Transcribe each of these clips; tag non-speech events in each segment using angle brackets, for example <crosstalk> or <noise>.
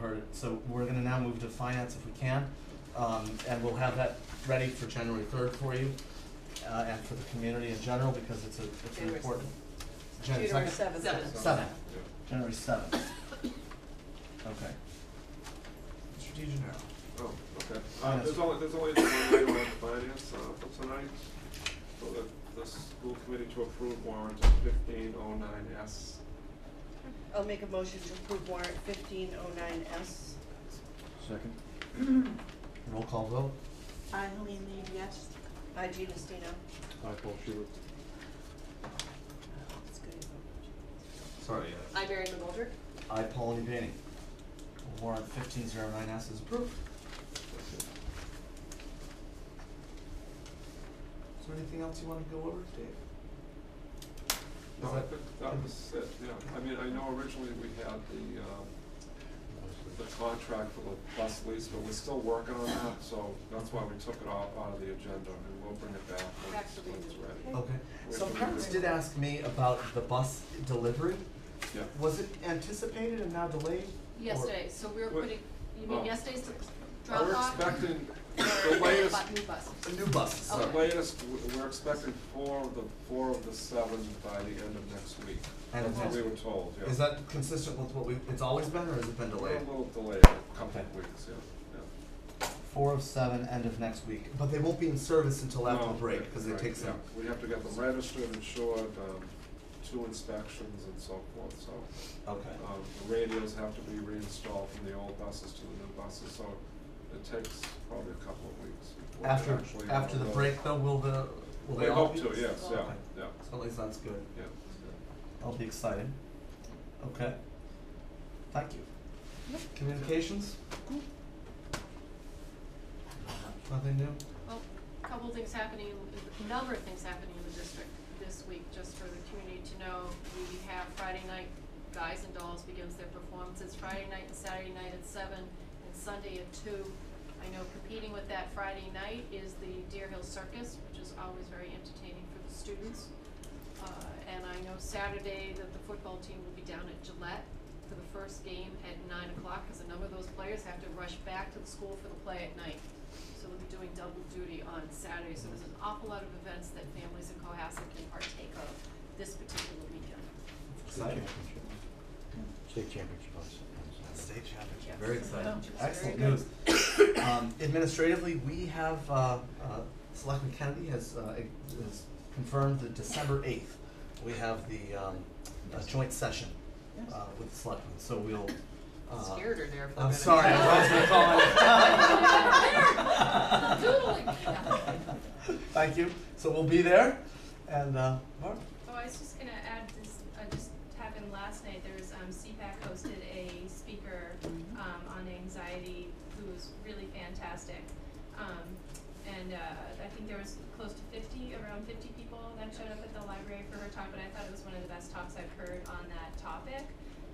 heard it. So we're gonna now move to finance if we can, um, and we'll have that ready for January third for you, uh, and for the community in general, because it's a, it's an January important. Jan- January second? seventh. Seventh. Seven, January seventh. Okay. Mr. DeGenaro. Oh, okay. Uh, Finance. there's only, there's only one item on finance, uh, for tonight. So the, the school committee to approve warrant fifteen oh nine S. I'll make a motion to approve warrant fifteen oh nine S. Second. Roll call vote. I, Helene Reed, yes. Hi, Gina Stino. Aye, Paul Schubert. It's good. Sorry. uh, I, Barry McGoldrick. I, Paul Nivini. Warrant fifteen zero nine S is approved. Is there anything else you wanna go over, Dave? No, Is I that- think that was it, yeah. I mean, I know originally we had the, um, the contract for the bus lease, but we're still working on that, so that's why we took it off out of the agenda, and we'll bring it back when it's, Actually, when it's ready. Okay, Wait some for the parents video. did ask me about the bus delivery. Yeah. Was it anticipated and now delayed? Or- Yesterday, so we were What- putting, you mean Oh. yesterday's drop We're off? <coughs> expecting or the latest, bu- New buses. New buses, The sorry. Okay. latest, w- we're expecting four of the, four of the seven by the end of next week. End of That's what next we were week. told, yeah. Is that consistent with what we, it's always been or has it been We're delayed? A little delayed, a couple Okay. of weeks, yeah, yeah. Four of seven, end of next week, but they won't be in service until after the No, break, because it right, takes yeah. them. We have to get them registered, insured, um, two inspections and so forth, so. Okay. Um, the radios have to be reinstalled from the old buses to the new buses, so it takes probably a couple of weeks. before they're After, actually on after the road. break though, will the, will We they all hope be? to, yes, yeah, Okay. yeah, So at least that's good. yeah, I'll be excited. Okay. Thank you. Communications? Mm-hmm. Nothing new? Well, a oh, couple of things happening, a number of things happening in the district this week, just for the community to know. We have Friday night, Guys and Dolls begins their performances Friday night and Saturday night at seven and Sunday at two. I know competing with that Friday night is the Deer Hill Circus, which is always very entertaining for the students. Uh, and I know Saturday that the football team will be down at Gillette for the first game at nine o'clock, cause a number of those players have to rush back to the school for the play at night. So they'll be doing double duty on Saturday, so there's an awful lot of events that families in Cohasset can partake of this particular weekend. Exciting. State championship. on Saturday. State championship. Yes. Very exciting. Which is very Excellent good. news. Um, administratively, we have, uh, uh, Selectman Kennedy has, uh, has confirmed that December eighth, we have the, um, uh, joint session, uh, with the selectmen, so we'll, uh. Scared her there for a I'm minute. sorry, I was gonna call <laughs> Doodling. <laughs> Thank you, so we'll be there, and, uh, Mark? Oh, I was just gonna add this, uh, just happened last night, there was, um, CPAC hosted a speaker, um, on anxiety, who was really fantastic. Um, and, uh, I think there was close to fifty, around fifty people that showed up at the library for her talk, but I thought it was one of the best talks I've heard on that topic,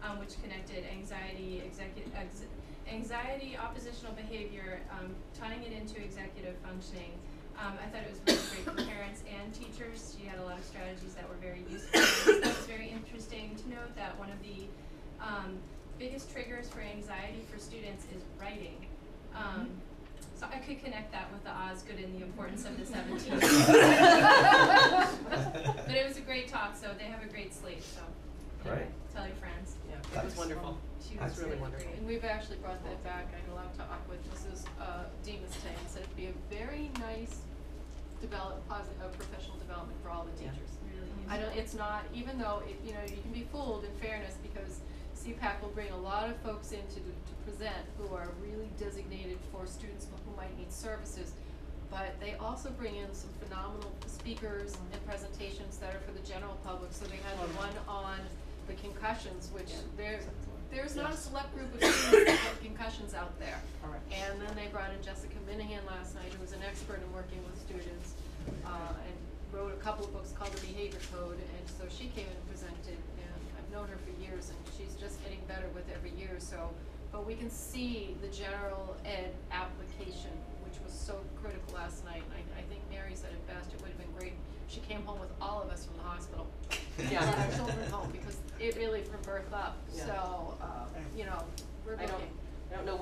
um, which connected anxiety, executive, ex- anxiety, oppositional behavior, um, tying it into executive functioning. Um, I thought it was really great for parents and teachers. She had a lot of strategies that were very useful. It was very interesting to note that one of the um, biggest triggers for anxiety for students is writing. Um, so I could connect that with the Osgood and the importance of the 17. but it was a great talk, so they have a great slate. So Great. tell your friends. Yeah, it was wonderful. She was That's really really wonderful. great. And we've actually brought that back, I had a lot to talk with Mrs. uh, Demus today, and said it'd be a very nice develop, positive, uh, professional development for all the Yeah. teachers. Really I useful. don't, it's not, even though, it- you know, you can be fooled in fairness, because CPAC will bring a lot of folks in to, do- to present who are really designated for students who might need services. But they also bring in some phenomenal speakers and presentations that are for the general public, so they had the one on the concussions, which there, there's not a select group of students that have concussions out there. Alright. And then they brought in Jessica Minahan last night, who was an expert in working with students, uh, and wrote a couple of books called The Behavior Code, and so she came and presented, and I've known her for years, and she's just getting better with every year, so. But we can see the general ed application, which was so critical last night, and I, I think Mary said it best, it would have been great, she came home with all of us from the hospital. Yeah. Brought our children home, because it really from birth up, Yeah. so, uh, you know, we're I looking. don't,